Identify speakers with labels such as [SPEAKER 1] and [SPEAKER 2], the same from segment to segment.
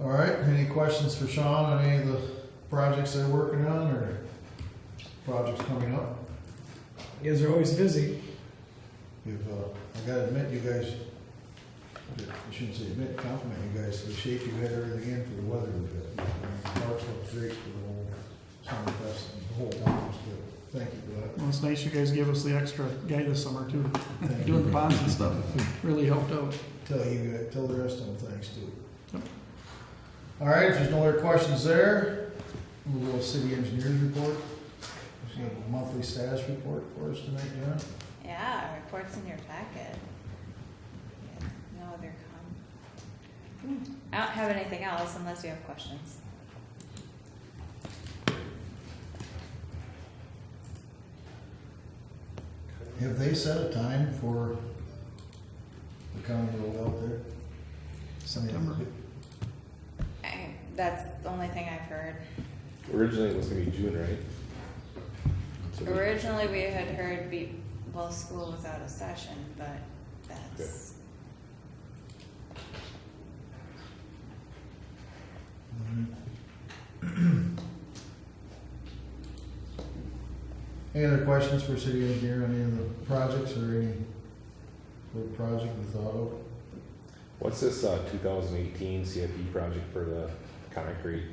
[SPEAKER 1] All right, any questions for Sean on any of the projects they're working on or projects coming up?
[SPEAKER 2] You guys are always busy.
[SPEAKER 1] You've, uh, I gotta admit, you guys, I shouldn't say admit, compliment you guys, the shape you had everything in for the weather we had. I mean, March looked great for the whole summer fest and the whole town was good. Thank you for
[SPEAKER 3] Well, it's nice you guys gave us the extra guy this summer too,
[SPEAKER 1] that. Thank you.
[SPEAKER 3] doing the ponds and stuff, really helped out.
[SPEAKER 1] Tell you, tell the rest of them thanks too.
[SPEAKER 3] Yep.
[SPEAKER 1] All right, if there's no other questions there, we'll go to city engineers report. If you have a monthly status report for us tonight, John?
[SPEAKER 4] Yeah, reports in your packet. Yes, No other com. Hmm, I don't have anything else unless you have questions.
[SPEAKER 1] Have they set a time for the county road out there? September.
[SPEAKER 4] I, that's the only thing I've heard.
[SPEAKER 5] Originally, it was gonna be June, right? So we-
[SPEAKER 4] Originally, we had heard be, well, school was out of session, but that's,
[SPEAKER 1] Mm-hmm. Any other questions for city engineer on any of the projects or any road project we thought of?
[SPEAKER 5] What's this, uh, two thousand eighteen CIP project for the concrete?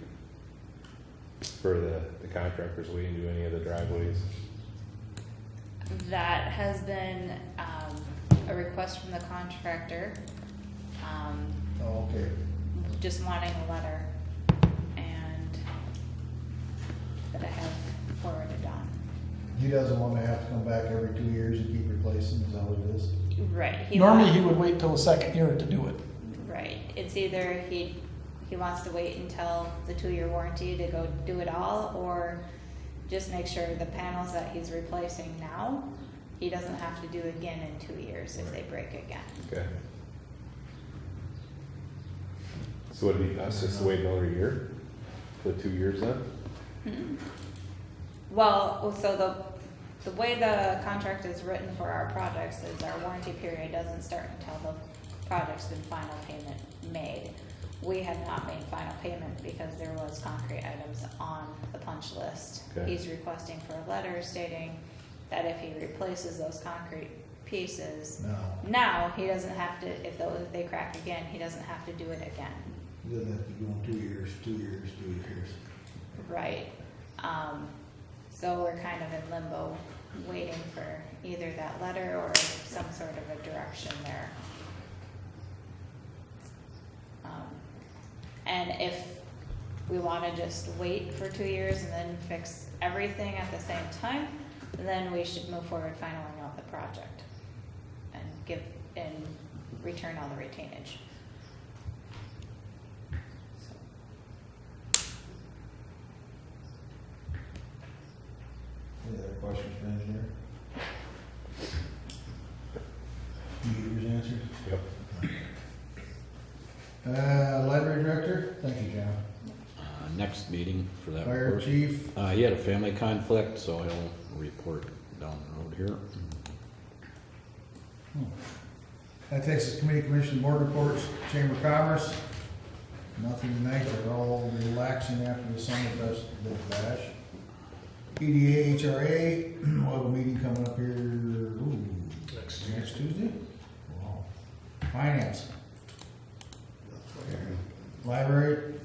[SPEAKER 5] For the, the contractors, we didn't do any of the driveways.
[SPEAKER 4] that has been, um, a request from the contractor. Um,
[SPEAKER 1] Oh, okay.
[SPEAKER 4] just wanting a letter and that I have forwarded on.
[SPEAKER 1] He doesn't want to have to come back every two years and keep replacing, is that what it is?
[SPEAKER 4] Right. He
[SPEAKER 2] Normally,
[SPEAKER 4] wa-
[SPEAKER 2] he would wait till the second year to do it.
[SPEAKER 4] Right. It's either he he wants to wait until the two year warranty to go do it all, or just make sure the panels that he's replacing now, he doesn't have to do again in two years if they break again.
[SPEAKER 5] Okay. So it'd be us just wait another year? For two years then?
[SPEAKER 4] Well, so the, the way the contract is written for our projects is our warranty period doesn't start until the project's been final payment made. We have not made final payment because there was concrete items on the punch list.
[SPEAKER 5] Okay.
[SPEAKER 4] He's requesting for a letter stating that if he replaces those concrete pieces,
[SPEAKER 1] No,
[SPEAKER 4] now he doesn't have to, if those, if they crack again, he doesn't have to do it again.
[SPEAKER 1] he doesn't have to go in two years, two years, two years.
[SPEAKER 4] Right. Um, so we're kind of in limbo, waiting for either that letter or some sort of a direction there. Um, And if we wanna just wait for two years and then fix everything at the same time, then we should move forward finaling out the project and give, and return all the retainage. So.
[SPEAKER 1] Any other questions for engineer? You get yours answered?
[SPEAKER 5] Yep.
[SPEAKER 1] Uh, library director, thank you, John.
[SPEAKER 6] Uh, Next meeting for that
[SPEAKER 1] Fire
[SPEAKER 6] report.
[SPEAKER 1] chief,
[SPEAKER 6] Uh, he had a family conflict, so he'll report down the road here.
[SPEAKER 1] that takes us committee commission board reports, chamber of commerce. Nothing tonight, they're all relaxing after the summer fest, the bash. EDA, HRA, we'll have a meeting coming up here, ooh, next Tuesday? Wow. Finance. Library.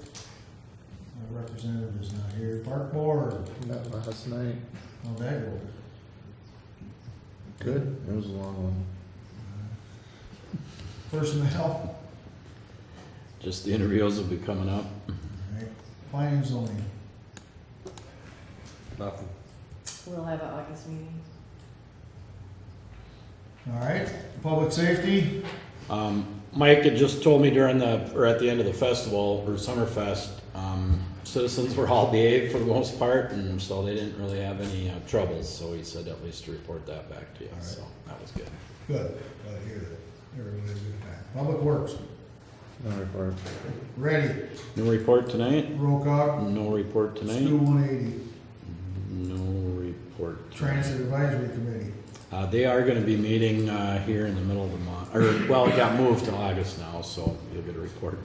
[SPEAKER 1] Our representative is not here. Park board,
[SPEAKER 7] Met last night.
[SPEAKER 1] how'd that go?
[SPEAKER 7] Good. It was a long one.
[SPEAKER 1] Uh, Personnel,
[SPEAKER 6] Just the interviews will be coming up.
[SPEAKER 1] alright, planning and zoning.
[SPEAKER 5] Nothing.
[SPEAKER 8] We'll have an August meeting.
[SPEAKER 1] All right, public safety,
[SPEAKER 6] Um, Mike had just told me during the, or at the end of the festival, or Summerfest, um, citizens were all behaved for the most part, and so they didn't really have any uh, troubles, so he said at least to report that back to you,
[SPEAKER 1] Alright.
[SPEAKER 6] so that was good.
[SPEAKER 1] good, glad to hear that, everybody had a good time. Public works,
[SPEAKER 7] No report.
[SPEAKER 1] ready,
[SPEAKER 6] No report tonight?
[SPEAKER 1] roll call,
[SPEAKER 6] No report
[SPEAKER 1] Stu
[SPEAKER 6] tonight?
[SPEAKER 1] one eighty,
[SPEAKER 6] No report.
[SPEAKER 1] transit advisory committee.
[SPEAKER 6] Uh, they are gonna be meeting, uh, here in the middle of the month, or, well, it got moved to August now, so you'll get a report